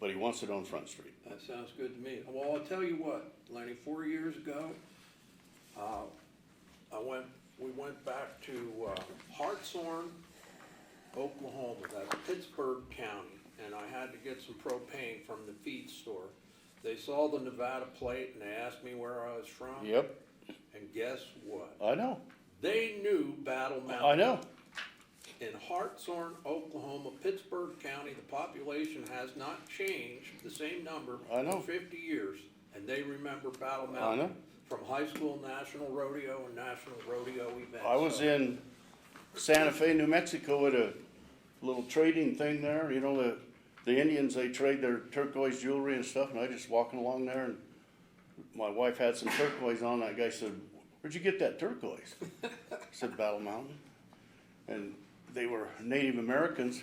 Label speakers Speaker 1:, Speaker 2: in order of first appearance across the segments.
Speaker 1: but he wants it on Front Street.
Speaker 2: That sounds good to me. Well, I'll tell you what, Lenny, four years ago, uh, I went, we went back to uh, Hartshorn, Oklahoma, that's Pittsburgh County, and I had to get some propane from the feed store. They saw the Nevada plate and they asked me where I was from.
Speaker 1: Yep,
Speaker 2: And guess what?
Speaker 1: I know,
Speaker 2: They knew Battle Mountain
Speaker 1: I know.
Speaker 2: in Hartshorn, Oklahoma, Pittsburgh County, the population has not changed, the same number
Speaker 1: I know.
Speaker 2: for fifty years, and they remember Battle
Speaker 1: I
Speaker 2: Mountain
Speaker 1: know.
Speaker 2: from high school national rodeo and national rodeo events.
Speaker 1: I was
Speaker 2: So,
Speaker 1: in Santa Fe, New Mexico at a little trading thing there, you know, the, the Indians, they trade their turquoise jewelry and stuff, and I just walking along there and my wife had some turquoise on, that guy said, where'd you get that turquoise? I said, Battle Mountain. And they were Native Americans,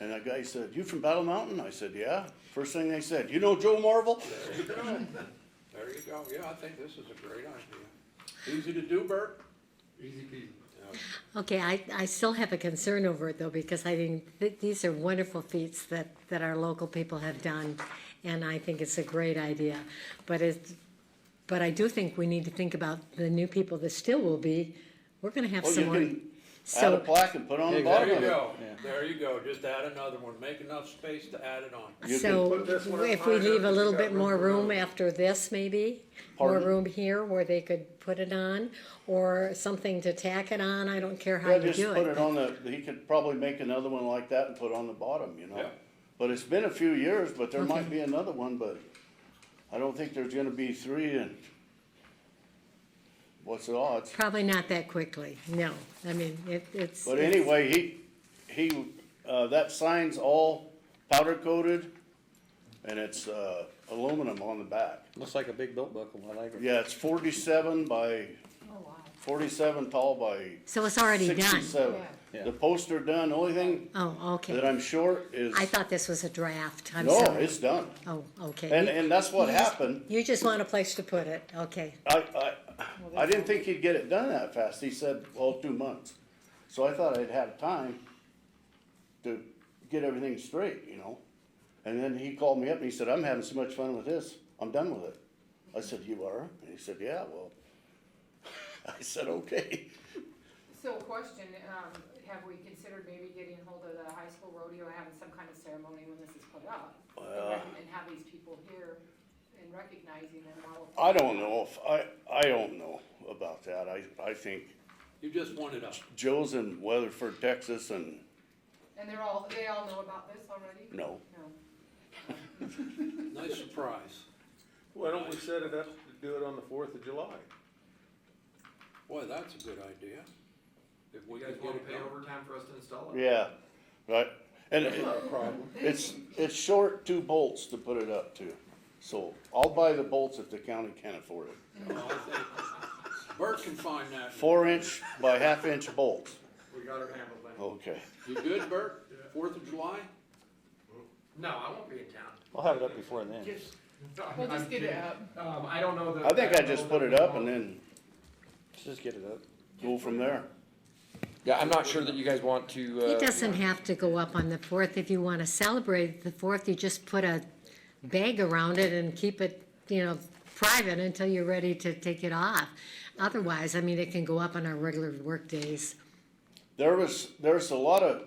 Speaker 1: and that guy said, you from Battle Mountain? I said, yeah. First thing they said, you know Joe Marvel?
Speaker 2: There you go, There you go. yeah, I think this is a great idea. Easy to do, Bert?
Speaker 3: Easy peasy.
Speaker 4: Okay, I, I still have a concern over it though, because I think th- these are wonderful feats that, that our local people have done, and I think it's a great idea. But it's, but I do think we need to think about the new people that still will be, we're gonna have
Speaker 1: Oh, you
Speaker 4: someone.
Speaker 1: can add a
Speaker 4: So,
Speaker 1: plaque and put on the
Speaker 2: There
Speaker 1: bottom
Speaker 2: you
Speaker 1: of it.
Speaker 2: go, there you go, just add another one, make enough space to add it on.
Speaker 1: you
Speaker 4: so
Speaker 3: can put this one
Speaker 4: if
Speaker 3: up
Speaker 4: we
Speaker 3: higher
Speaker 4: leave a
Speaker 3: if you
Speaker 4: little
Speaker 3: got
Speaker 4: bit
Speaker 3: room
Speaker 4: more
Speaker 3: for
Speaker 4: room
Speaker 3: another.
Speaker 4: after this, maybe? More
Speaker 1: Pardon?
Speaker 4: room here where they could put it on, or something to tack it on, I don't care how
Speaker 1: Yeah,
Speaker 4: you
Speaker 1: just
Speaker 4: do
Speaker 1: put
Speaker 4: it.
Speaker 1: it on the, he could probably make another one like that and put on the bottom, you know?
Speaker 2: Yeah.
Speaker 1: But it's been a few years, but there might be another one, but I don't think there's gonna be three and what's the odds?
Speaker 4: Probably not that quickly, no, I mean, it, it's.
Speaker 1: But
Speaker 4: it's-
Speaker 1: anyway, he, he, uh, that sign's all powder coated and it's, uh, aluminum on the back.
Speaker 5: Looks like a big belt buckle, I like it.
Speaker 1: Yeah, it's forty-seven by, forty-seven tall by
Speaker 4: So it's Oh, already done?
Speaker 1: sixty-seven.
Speaker 5: Yeah.
Speaker 1: The poster done, only thing
Speaker 4: Oh,
Speaker 1: that
Speaker 4: okay.
Speaker 1: I'm sure is,
Speaker 4: I thought this was a draft, I'm
Speaker 1: no,
Speaker 4: sorry.
Speaker 1: it's done.
Speaker 4: Oh, okay.
Speaker 1: And,
Speaker 4: You-
Speaker 1: and that's what happened.
Speaker 4: You just want a place to put it, okay.
Speaker 1: I, I, I didn't think he'd get it done that fast. He said, well, two months. So I thought I'd have time to get everything straight, you know? And then he called me up and he said, I'm having so much fun with this. I'm done with it. I said, you are? And he said, yeah, well. I said, okay.
Speaker 6: So question, um, have we considered maybe getting hold of the high school rodeo, and having some kind of ceremony when this is put up? and
Speaker 1: Uh,
Speaker 6: rec- And have these people here and recognizing them while.
Speaker 1: I don't know if, I, I don't know about that. I, I think
Speaker 2: You just want it up.
Speaker 1: Joe's in Weatherford, Texas and
Speaker 6: And they're all, they all know about this already?
Speaker 1: no.
Speaker 6: No.
Speaker 2: Nice surprise.
Speaker 3: Why don't we set it up to do it on the fourth of July?
Speaker 2: Boy, that's a good idea. If we
Speaker 7: You
Speaker 2: could
Speaker 7: guys
Speaker 2: get
Speaker 7: wanna
Speaker 2: it
Speaker 7: pay
Speaker 2: done.
Speaker 7: overtime for us to install it?
Speaker 1: Yeah, right. And
Speaker 3: That's not a problem.
Speaker 1: It's, it's short two bolts to put it up to, so I'll buy the bolts if the county can afford it.
Speaker 2: Bert can find that.
Speaker 1: Four inch by half inch bolts,
Speaker 7: We got her handled, Lynn.
Speaker 1: okay.
Speaker 2: You good, Bert? Fourth of July?
Speaker 7: No, I won't be in town.
Speaker 5: I'll have it up before then.
Speaker 7: We'll just get it up. Um, I don't know the.
Speaker 1: I think I just put it up and then
Speaker 5: Let's just get it up.
Speaker 1: go from there.
Speaker 8: Yeah, I'm not sure that you guys want to,
Speaker 4: It
Speaker 8: uh,
Speaker 4: doesn't have to go up on the fourth. If you want to celebrate the fourth, you just put a bag around it and keep it, you know, private until you're ready to take it off. Otherwise, I mean, it can go up on our regular work days.
Speaker 1: There was, there's a lot of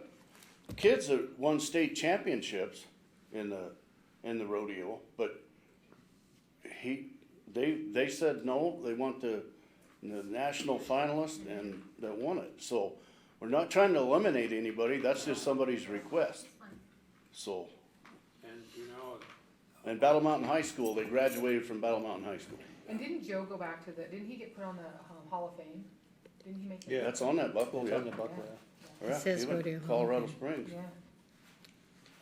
Speaker 1: kids that won state championships in the, in the rodeo, but he, they, they said no, they want the, the national finalist and that won it, so we're not trying to eliminate anybody, that's just somebody's request. So,
Speaker 2: And, you know,
Speaker 1: and Battle Mountain High School, they graduated from Battle Mountain High School.
Speaker 6: And didn't Joe go back to the, didn't he get put on the um, Hall of Fame? Didn't he make it?
Speaker 5: Yeah.
Speaker 1: That's on that buckle,
Speaker 5: Bolt
Speaker 1: yeah.
Speaker 5: on the buckle, yeah.
Speaker 1: Yeah,
Speaker 4: It says
Speaker 1: even
Speaker 4: rodeo.
Speaker 1: Colorado Springs,
Speaker 6: Yeah.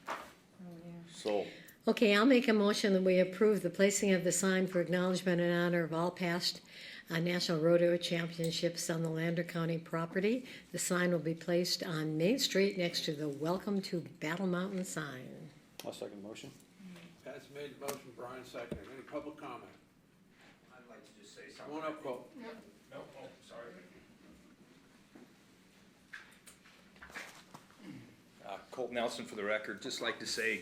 Speaker 6: Oh, yeah.
Speaker 1: so,
Speaker 4: Okay, I'll make a motion that we approve the placing of the sign for acknowledgement in honor of all past uh, National Rodeo Championships on the Lander County property. The sign will be placed on Main Street next to the Welcome to Battle Mountain sign.
Speaker 5: I'll second the motion.
Speaker 2: Pat's made the motion, Brian seconded. Any public comment?
Speaker 7: I'd like to just say
Speaker 2: Come on up, Bo.
Speaker 7: No, oh, sorry.
Speaker 9: Uh, Colt Nelson for the record, just like to say,